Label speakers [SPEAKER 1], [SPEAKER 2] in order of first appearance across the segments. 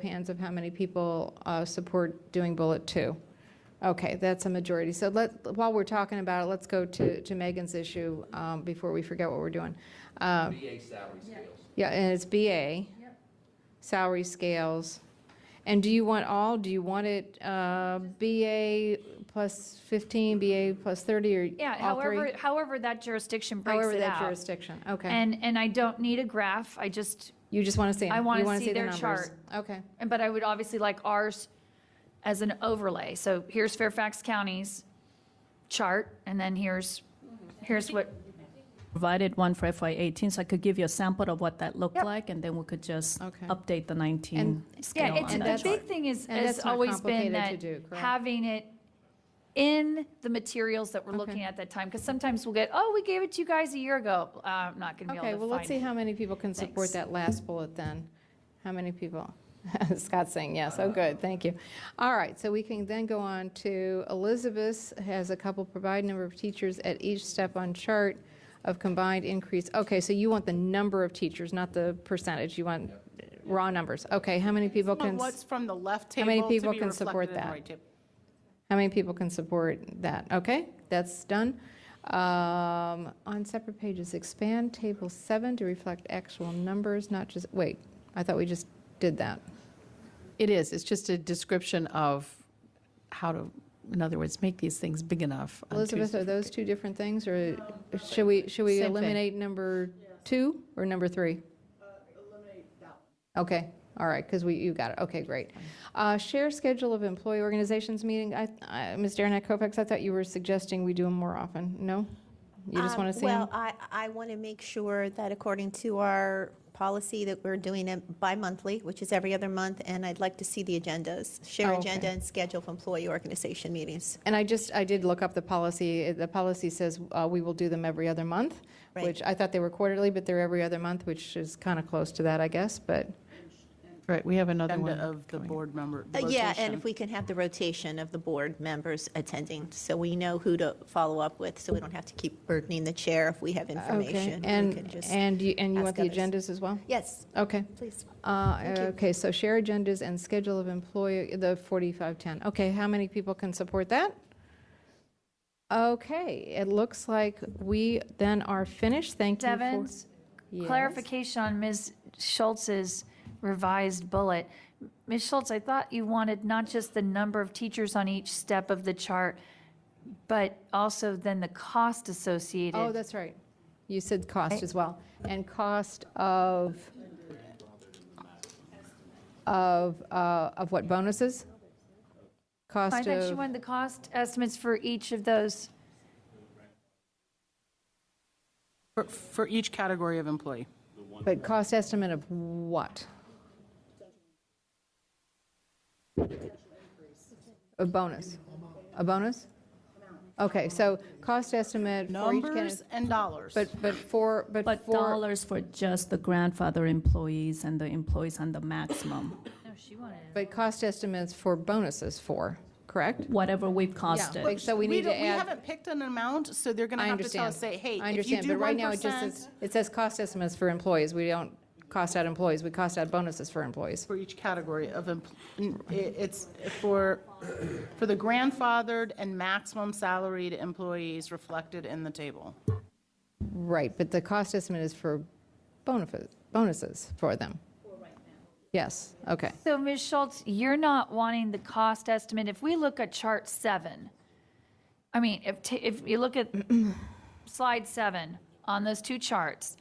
[SPEAKER 1] hands of how many people uh, support doing bullet two. Okay, that's a majority. So let, while we're talking about it, let's go to, to Megan's issue um, before we forget what we're doing. Uh,
[SPEAKER 2] BA salary scales.
[SPEAKER 1] Yeah, and it's BA. Salary scales. And do you want all, do you want it uh, BA plus 15, BA plus 30, or all three?
[SPEAKER 3] Yeah, however, however that jurisdiction breaks
[SPEAKER 1] However
[SPEAKER 3] it
[SPEAKER 1] that
[SPEAKER 3] out.
[SPEAKER 1] jurisdiction, okay.
[SPEAKER 3] And, and I don't need a graph, I just,
[SPEAKER 1] You just want to see them?
[SPEAKER 3] I wanna
[SPEAKER 1] You wanna
[SPEAKER 3] see
[SPEAKER 1] the
[SPEAKER 3] their
[SPEAKER 1] numbers.
[SPEAKER 3] chart.
[SPEAKER 1] Okay,
[SPEAKER 3] but I would obviously like ours as an overlay. So here's Fairfax County's chart, and then here's, here's what,
[SPEAKER 4] provided one for FY '18, so I could give you a sample of what that looked
[SPEAKER 3] Yep.
[SPEAKER 4] like, and then we could just
[SPEAKER 1] Okay.
[SPEAKER 4] update the 19
[SPEAKER 1] And-
[SPEAKER 4] scale
[SPEAKER 3] yeah, it's,
[SPEAKER 1] and
[SPEAKER 4] on that
[SPEAKER 3] the
[SPEAKER 1] that's-
[SPEAKER 3] big
[SPEAKER 4] chart.
[SPEAKER 3] thing is,
[SPEAKER 1] and
[SPEAKER 3] has
[SPEAKER 1] that's not
[SPEAKER 3] always been
[SPEAKER 1] complicated
[SPEAKER 3] that
[SPEAKER 1] to do, correct?
[SPEAKER 3] having it in the materials that we're looking at that time, because sometimes we'll get, oh, we gave it to you guys a year ago. Uh, I'm not going to be able to
[SPEAKER 1] okay,
[SPEAKER 3] find
[SPEAKER 1] well, let's see
[SPEAKER 3] it.
[SPEAKER 1] how many people can support
[SPEAKER 3] Thanks.
[SPEAKER 1] that last bullet then. How many people? Scott's saying yes, oh, good, thank you. All right, so we can then go on to Elizabeth has a couple, provide number of teachers at each step on chart of combined increase. Okay, so you want the number of teachers, not the percentage, you want raw numbers. Okay, how many people
[SPEAKER 5] Well,
[SPEAKER 1] can,
[SPEAKER 5] What's
[SPEAKER 1] s-
[SPEAKER 5] from the left
[SPEAKER 1] How
[SPEAKER 5] table
[SPEAKER 1] many
[SPEAKER 5] to be
[SPEAKER 1] people can
[SPEAKER 5] reflected
[SPEAKER 1] support
[SPEAKER 5] in the
[SPEAKER 1] that?
[SPEAKER 5] right table.
[SPEAKER 1] how many people can support that? Okay, that's done. Um, On separate pages, expand table seven to reflect actual numbers, not just, wait, I thought we just did that.
[SPEAKER 5] It is, it's just a description of how to, in other words, make these things big enough. on
[SPEAKER 1] Elizabeth,
[SPEAKER 5] Tuesday.
[SPEAKER 1] are those two different things, or should we, should we
[SPEAKER 5] Same thing.
[SPEAKER 1] eliminate number two or number three? Okay, all right, because we, you got it, okay, great. Uh, Share schedule of employee organizations meeting, I, I- Ms. Darren Kovacs, I thought you were suggesting we do them more often, no? You just
[SPEAKER 6] Um,
[SPEAKER 1] want to see
[SPEAKER 6] Well,
[SPEAKER 1] them?
[SPEAKER 6] I, I want to make sure that according to our policy, that we're doing it bi-monthly, which is every other month, and I'd like to see the agendas, share
[SPEAKER 1] Oh, okay.
[SPEAKER 6] agenda and schedule of employee organization meetings.
[SPEAKER 1] And I just, I did look up the policy, the policy says uh, we will do them every other month,
[SPEAKER 6] Right.
[SPEAKER 1] which I thought they were quarterly, but they're every other month, which is kind of close to that, I guess, but.
[SPEAKER 5] Right, we have another one.
[SPEAKER 7] agenda of the board member
[SPEAKER 6] Uh, Yeah, and
[SPEAKER 7] rotation.
[SPEAKER 6] if we can have the rotation of the board members attending, so we know who to follow up with, so we don't have to keep burdening the chair if we have information.
[SPEAKER 1] Uh, Okay,
[SPEAKER 6] We could
[SPEAKER 1] and,
[SPEAKER 6] just
[SPEAKER 1] and you, and you want
[SPEAKER 6] ask
[SPEAKER 1] the
[SPEAKER 6] others.
[SPEAKER 1] agendas as well?
[SPEAKER 6] Yes,
[SPEAKER 1] Okay.
[SPEAKER 6] please.
[SPEAKER 1] Uh,
[SPEAKER 6] Thank you.
[SPEAKER 1] Okay, so share agendas and schedule of employee, the 4510. Okay, how many people can support that? Okay, it looks like we then are finished. Thank you for.
[SPEAKER 3] Devon's
[SPEAKER 1] Yes.
[SPEAKER 3] clarification on Ms. Schultz's revised bullet. Ms. Schultz, I thought you wanted not just the number of teachers on each step of the chart, but also then the cost associated.
[SPEAKER 1] Oh, that's right. You said cost as well. And cost of, of, uh, of what, bonuses? Cost
[SPEAKER 3] I
[SPEAKER 1] of.
[SPEAKER 3] thought you wanted the cost estimates for each of those.
[SPEAKER 7] For- For each category of employee.
[SPEAKER 1] But cost estimate of what? A bonus? A bonus? Okay, so cost estimate for each
[SPEAKER 7] Numbers
[SPEAKER 1] candidate,
[SPEAKER 7] and dollars.
[SPEAKER 1] but, but for, but
[SPEAKER 4] But
[SPEAKER 1] for,
[SPEAKER 4] dollars for just the grandfather employees and the employees on the maximum,
[SPEAKER 3] No, she wanted.
[SPEAKER 1] but cost estimates for bonuses for, correct?
[SPEAKER 4] whatever we've
[SPEAKER 1] Yeah,
[SPEAKER 4] costed.
[SPEAKER 1] like, so we need
[SPEAKER 7] don't-
[SPEAKER 1] to add.
[SPEAKER 7] We haven't picked an amount, so they're going to
[SPEAKER 1] I
[SPEAKER 7] have to tell
[SPEAKER 1] understand.
[SPEAKER 7] us, say, hey,
[SPEAKER 1] I
[SPEAKER 7] if you
[SPEAKER 1] understand,
[SPEAKER 7] do
[SPEAKER 1] but right now it just
[SPEAKER 7] 1%
[SPEAKER 1] says, it says cost estimates for employees. We don't cost out employees, we cost out bonuses for employees.
[SPEAKER 7] for each category of, empl- n- i- it's for, for the grandfathered and maximum salaried employees reflected in the table.
[SPEAKER 1] Right, but the cost estimate is for bonuses, bonuses for them. Yes, okay.
[SPEAKER 3] So Ms. Schultz, you're not wanting the cost estimate. If we look at chart seven, I mean, if, ta- if you look at slide seven on those two charts,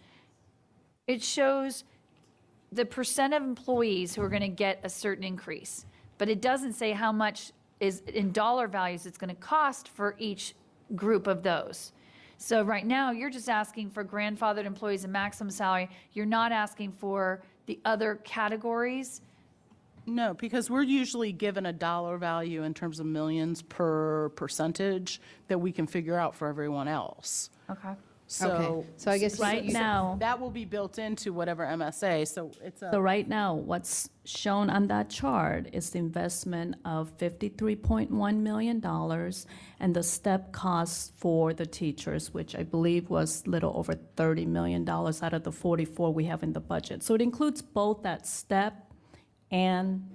[SPEAKER 3] it shows the percent of employees who are going to get a certain increase, but it doesn't say how much is in dollar values it's going to cost for each group of those. So right now, you're just asking for grandfathered employees and maximum salary. You're not asking for the other categories.
[SPEAKER 7] No, because we're usually given a dollar value in terms of millions per percentage that we can figure out for everyone else.
[SPEAKER 3] Okay.
[SPEAKER 7] So.
[SPEAKER 1] Okay, so I guess you-
[SPEAKER 4] Right
[SPEAKER 1] you-
[SPEAKER 4] now,
[SPEAKER 7] That will be built into whatever MSA, so it's a.
[SPEAKER 4] so right now, what's shown on that chart is the investment of $53.1 million and the step costs for the teachers, which I believe was little over $30 million out of the 44 we have in the budget. So it includes both that step and